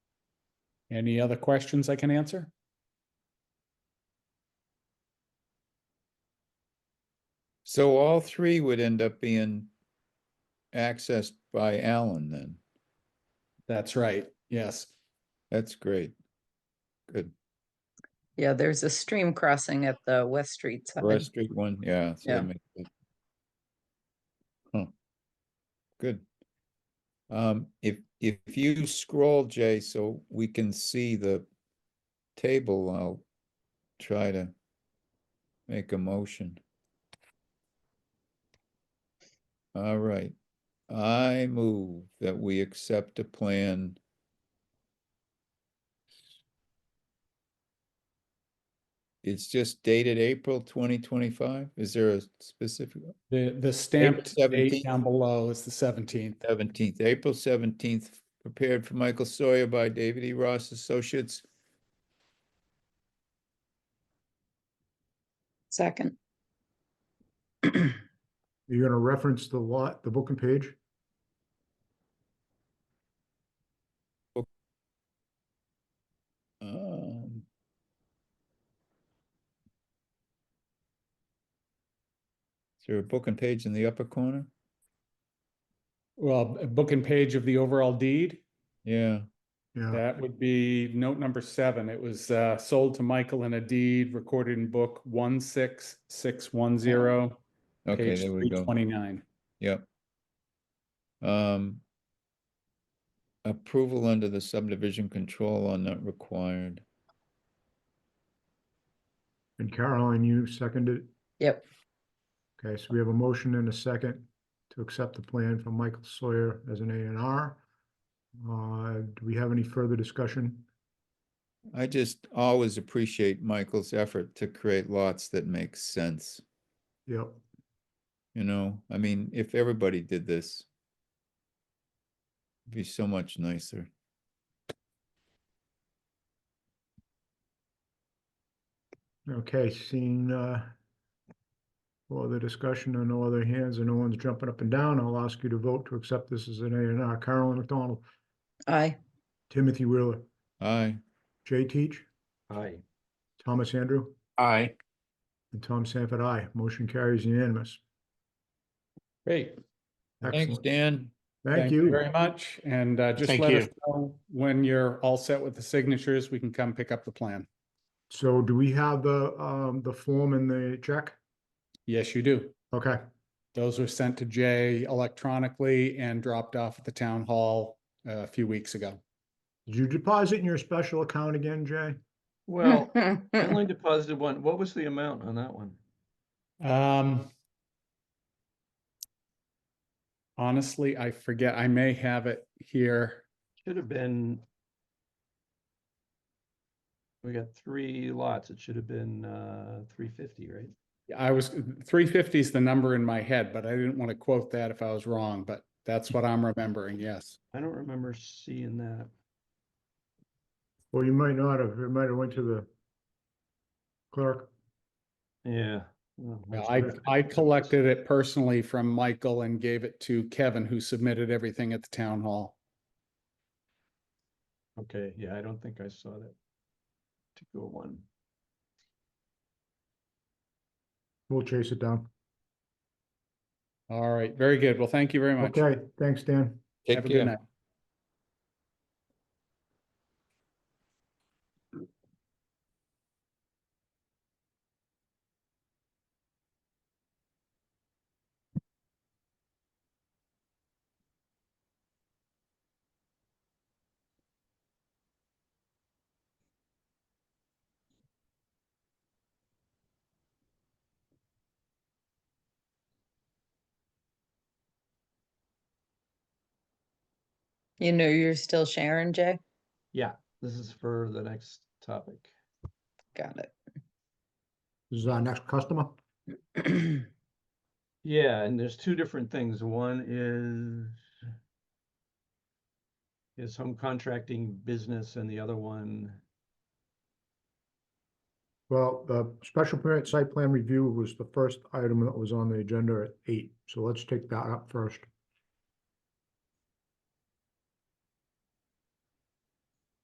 Any other questions I can answer? So all three would end up being accessed by Alan then. That's right, yes. That's great. Good. Yeah, there's a stream crossing at the West Street side. Forest Street one, yeah. so that Yeah. makes it- Huh. Good. Um, if, if you scroll, Jay, so we can see the table, I'll try to make a motion. All right, I move that we accept a plan It's just dated April twenty twenty-five? Is there a specific, The, the stamped date 17th. down below is the seventeenth. seventeenth, April seventeenth, prepared for Michael Sawyer by David E. Ross Associates, Second, You're gonna reference the lot, the book and page? um. Is there a book and page in the upper corner? Well, b- book and page of the overall deed, Yeah, Uh-huh. Yeah, that would be note number seven. It was, uh, sold to Michael in a deed recorded in book one six six one zero. okay, page there we go, Twenty-nine. yep. Um. Approval under the subdivision control are not required. and Caroline, you seconded. it? Yep. Okay, so we have a motion and a second to accept the plan from Michael Sawyer as an A and R. Uh, do we have any further discussion? I just always appreciate Michael's effort to create lots that make sense, Yep, you know? I mean, if everybody did this, it'd be so much nicer. okay, seeing, uh, no other discussion and no other hands and no one's jumping up and down, I'll ask you to vote to accept this as an A and R. Carolyn McDonald, aye, Timothy Wheeler, Aye, Jay Teach, Aye. Thomas Andrew, Aye. and Tom Sanford, aye. Motion carries unanimous. Great. thanks, Excellent. Dan. Thank you. Very much. And, uh, just Thank let you. us know when you're all set with the signatures, we can come pick up the plan. So do we have the, um, the form and the check? Yes, you do. Okay, Those were sent to Jay electronically and dropped off at the town hall uh, a few weeks ago. did you deposit in your special account again, Jay? Well, I only deposited one. What was the amount on that one? Um, honestly, I forget. I may have it here. Should have been. We got three lots. It should have been uh three fifty, right? I was three fifty is the number in my head, but I didn't want to quote that if I was wrong, but that's what I'm remembering. Yes. I don't remember seeing that. Well, you might not have, it might have went to the clerk. Yeah. well, Well, that's I, perfect. I collected it personally from Michael and gave it to Kevin, who submitted everything at the town hall. Okay, yeah, I don't think I saw that. Particular one. We'll chase it down. All right, very good. Well, thank you very much. Okay, thanks, Dan. Take Have a good care. night. you know, you're still sharing, Jay? Yeah, this is for the next topic. Got This is our next customer. it. Yeah, and there's two different things. One is his home contracting business and the other one, Well, the special permit site plan review was the first item that was on the agenda at eight, so let's take that up first.